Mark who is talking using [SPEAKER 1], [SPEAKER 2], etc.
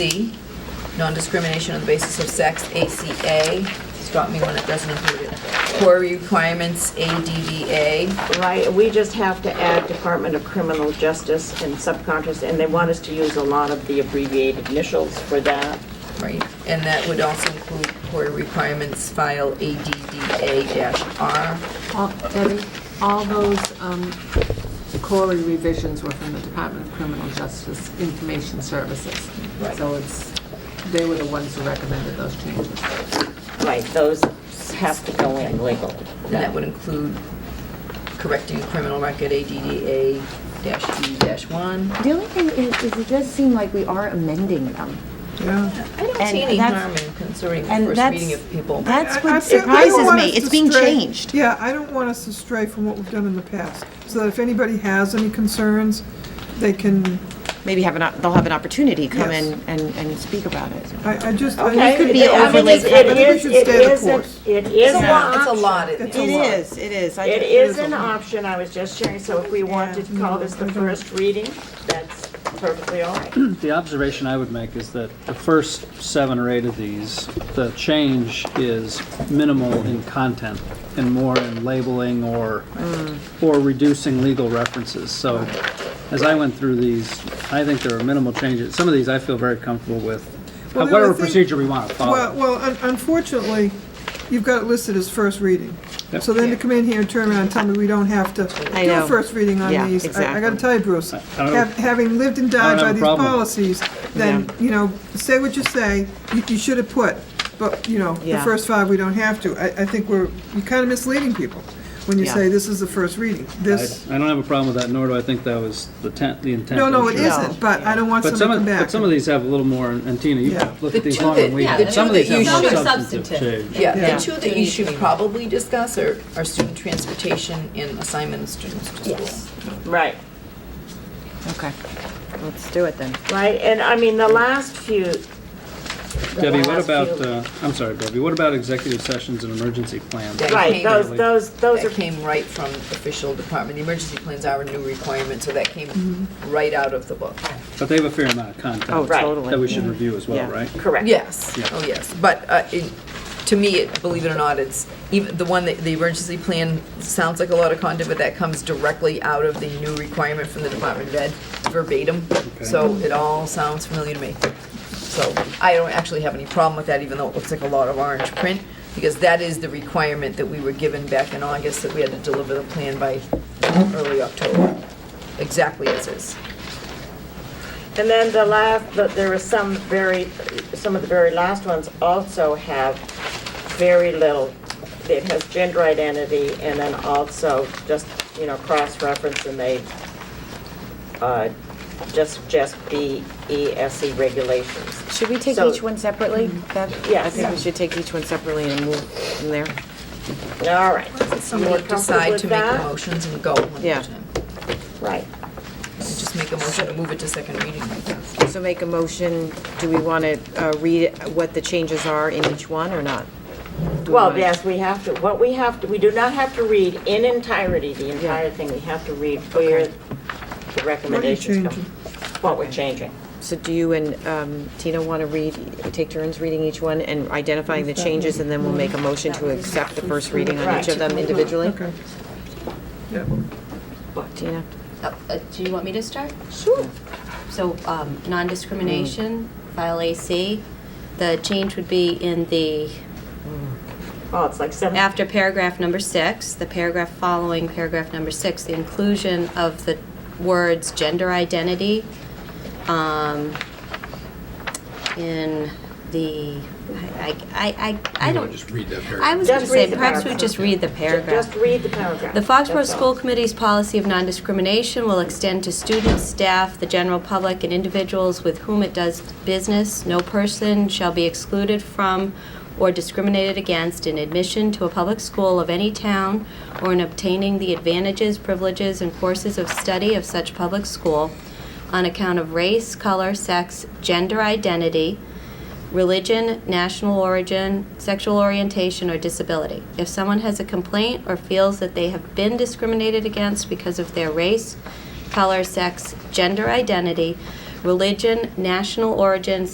[SPEAKER 1] C, non-discrimination on the basis of sex, ACA, stop me when it doesn't include it. Core requirements, ADDA,
[SPEAKER 2] Right, we just have to add Department of Criminal Justice and subcontracts, and they want us to use a lot of the abbreviated initials for that.
[SPEAKER 1] right? And that would also include core requirements file ADDA-R.
[SPEAKER 3] All- Debbie, all those um, Corey revisions were from the Department of Criminal Justice Information Services.
[SPEAKER 1] Right.
[SPEAKER 3] So it's, they were the ones who recommended those changes.
[SPEAKER 2] Right, those have to go in legally.
[SPEAKER 1] And that would include correcting a criminal record, E ADDA-E-1.
[SPEAKER 4] The only thing is, is it does seem like we are amending them.
[SPEAKER 1] Yeah. I don't see
[SPEAKER 4] And
[SPEAKER 1] any
[SPEAKER 4] that's-
[SPEAKER 1] harm in considering the
[SPEAKER 4] and
[SPEAKER 1] first
[SPEAKER 4] that's-
[SPEAKER 1] reading of people.
[SPEAKER 4] That's what
[SPEAKER 5] I- I feel- I don't
[SPEAKER 4] surprises
[SPEAKER 5] want
[SPEAKER 4] me,
[SPEAKER 5] us
[SPEAKER 4] it's
[SPEAKER 5] to
[SPEAKER 4] being
[SPEAKER 5] stray-
[SPEAKER 4] changed.
[SPEAKER 5] Yeah, I don't want us to stray from what we've done in the past, so that if anybody has any concerns, they can,
[SPEAKER 6] maybe have an, op- they'll have an opportunity to come
[SPEAKER 5] Yes.
[SPEAKER 6] in and, and speak about it.
[SPEAKER 5] I, I just. I
[SPEAKER 2] Okay,
[SPEAKER 5] just-
[SPEAKER 4] could be
[SPEAKER 2] I mean,
[SPEAKER 4] overly
[SPEAKER 2] it- it
[SPEAKER 5] I think we
[SPEAKER 2] is-
[SPEAKER 5] should
[SPEAKER 2] it
[SPEAKER 5] stay the
[SPEAKER 2] is an-
[SPEAKER 5] course.
[SPEAKER 2] It is an
[SPEAKER 1] It's a
[SPEAKER 2] option.
[SPEAKER 1] lot. It's a
[SPEAKER 6] It
[SPEAKER 1] lot.
[SPEAKER 6] is, it is. I
[SPEAKER 2] It
[SPEAKER 6] just-
[SPEAKER 2] is an option, I was just sharing, so if we wanted to call this the first reading, that's perfectly all right.
[SPEAKER 7] The observation I would make is that the first seven or eight of these, the change is minimal in content and more in labeling or,
[SPEAKER 5] Mm.
[SPEAKER 7] or reducing legal references. So as I went through these, I think there are minimal changes. Some of these I feel very comfortable with,
[SPEAKER 5] Well, then I
[SPEAKER 7] whatever
[SPEAKER 5] think-
[SPEAKER 7] procedure we want to
[SPEAKER 5] Well,
[SPEAKER 7] follow.
[SPEAKER 5] well, un- unfortunately, you've got it listed as first reading.
[SPEAKER 7] Yep.
[SPEAKER 5] So then to come in here and turn around and tell me we don't have to
[SPEAKER 6] I
[SPEAKER 5] do a
[SPEAKER 6] know.
[SPEAKER 5] first reading
[SPEAKER 6] Yeah,
[SPEAKER 5] on these. I- I gotta
[SPEAKER 6] exactly.
[SPEAKER 5] tell you, Bruce,
[SPEAKER 7] I don't-
[SPEAKER 5] hav- having lived and died
[SPEAKER 7] have
[SPEAKER 5] by
[SPEAKER 7] a
[SPEAKER 5] these
[SPEAKER 7] problem.
[SPEAKER 5] policies, then, you know, say what you say, you, you should have put, but, you know, the
[SPEAKER 6] Yeah.
[SPEAKER 5] first five, we don't have to. I, I think we're, you're kind of misleading people when you
[SPEAKER 6] Yeah.
[SPEAKER 5] say this is the first reading.
[SPEAKER 7] I
[SPEAKER 5] This,
[SPEAKER 7] I don't have a problem with that, nor do I think that was the intent, the intent.
[SPEAKER 5] no, no, it
[SPEAKER 7] I'm sure.
[SPEAKER 5] isn't, but I don't want
[SPEAKER 7] But
[SPEAKER 5] someone
[SPEAKER 7] some
[SPEAKER 5] to
[SPEAKER 7] of,
[SPEAKER 5] come back.
[SPEAKER 7] but some of these have a little more, and Tina, you
[SPEAKER 5] Yeah.
[SPEAKER 7] look
[SPEAKER 1] The
[SPEAKER 7] at these
[SPEAKER 1] two
[SPEAKER 7] longer
[SPEAKER 1] that-
[SPEAKER 7] than we
[SPEAKER 1] yeah,
[SPEAKER 7] do.
[SPEAKER 1] the
[SPEAKER 7] Some of
[SPEAKER 1] two
[SPEAKER 7] these
[SPEAKER 1] that
[SPEAKER 7] have
[SPEAKER 1] you
[SPEAKER 7] more
[SPEAKER 1] should-
[SPEAKER 7] substantive change.
[SPEAKER 1] Yeah,
[SPEAKER 5] Yeah.
[SPEAKER 1] the two that you should probably discuss are, are student transportation and assignment of students to school.
[SPEAKER 2] Right.
[SPEAKER 6] Okay, let's do it then.
[SPEAKER 2] Right, and I mean, the last few. the
[SPEAKER 7] Debbie, what
[SPEAKER 2] last
[SPEAKER 7] about,
[SPEAKER 2] few-
[SPEAKER 7] uh, I'm sorry, Debbie, what about executive sessions and emergency plans?
[SPEAKER 1] Yeah.
[SPEAKER 2] Right, those,
[SPEAKER 7] Really?
[SPEAKER 2] those, those are
[SPEAKER 1] That came right from official department, the emergency plans are a new requirement, so that came right out of the book.
[SPEAKER 7] But they have a fair amount of
[SPEAKER 6] Oh,
[SPEAKER 7] content
[SPEAKER 2] Right.
[SPEAKER 6] totally.
[SPEAKER 7] that we should review as well,
[SPEAKER 6] Yeah.
[SPEAKER 7] right?
[SPEAKER 2] correct.
[SPEAKER 1] Yes,
[SPEAKER 7] Yeah.
[SPEAKER 1] oh yes, but uh, it- to me, it- believe it or not, it's, even the one, that the emergency plan sounds like a lot of content, but that comes directly out of the new requirement from the Department of Ed verbatim, so it all sounds familiar to me. So I don't actually have any problem with that, even though it looks like a lot of orange print, because that is the requirement that we were given back in August, that we had to deliver the plan by early October, exactly as is.
[SPEAKER 2] And then the last, but there were some very, some of the very last ones also have very little, it has gender identity, and then also just, you know, cross-reference, and they uh, just suggest BESE E regulations.
[SPEAKER 6] Should we take
[SPEAKER 2] So-
[SPEAKER 6] each one separately? That- I
[SPEAKER 2] Yes.
[SPEAKER 6] think we should take each one separately and move from there.
[SPEAKER 2] All right. More
[SPEAKER 1] Somebody
[SPEAKER 2] comfortable
[SPEAKER 1] decide
[SPEAKER 2] with
[SPEAKER 1] to make the
[SPEAKER 2] that?
[SPEAKER 1] motions and go one
[SPEAKER 6] Yeah.
[SPEAKER 1] at a time.
[SPEAKER 2] Right.
[SPEAKER 1] Just make a motion to move it to second reading, I guess.
[SPEAKER 6] So make a motion, do we want to uh, read what the changes are in each one or not? Do we
[SPEAKER 2] Well,
[SPEAKER 6] wanna-
[SPEAKER 2] yes, we have to, what we have to, we do not have to read in entirety, the entire thing. We have to read where the recommendations come.
[SPEAKER 5] changing?
[SPEAKER 2] What we're changing.
[SPEAKER 6] So do you and um, Tina want to read, take turns reading each one and identifying the changes, and then we'll make a motion to accept the first reading on each of them individually?
[SPEAKER 5] Okay.
[SPEAKER 6] Tina?
[SPEAKER 8] Uh, uh, Do you want me to start? Sure. So, um, non-discrimination, file AC, the change would be in the,
[SPEAKER 2] Oh, it's like seven.
[SPEAKER 8] after paragraph number six, the paragraph following paragraph number six, the inclusion of the words gender identity um, in the, I, I, I- I I
[SPEAKER 9] You
[SPEAKER 8] don't.
[SPEAKER 9] wanna just read that paragraph?
[SPEAKER 8] I was
[SPEAKER 2] Just
[SPEAKER 8] going to
[SPEAKER 2] read
[SPEAKER 8] say,
[SPEAKER 2] the
[SPEAKER 8] perhaps we
[SPEAKER 2] paragraph.
[SPEAKER 8] just read the
[SPEAKER 2] Ju-
[SPEAKER 8] paragraph.
[SPEAKER 2] Just read the paragraph.
[SPEAKER 8] The Foxborough
[SPEAKER 2] That's all.
[SPEAKER 8] School Committee's policy of non-discrimination will extend to students, staff, the general public, and individuals with whom it does business. No person shall be excluded from or discriminated against in admission to a public school of any town or in obtaining the advantages, privileges, and courses of study of such public school on account of race, color, sex, gender identity, religion, national origin, sexual orientation, or disability. If someone has a complaint or feels that they have been discriminated against because of their race, color, sex, gender identity, religion, national origin,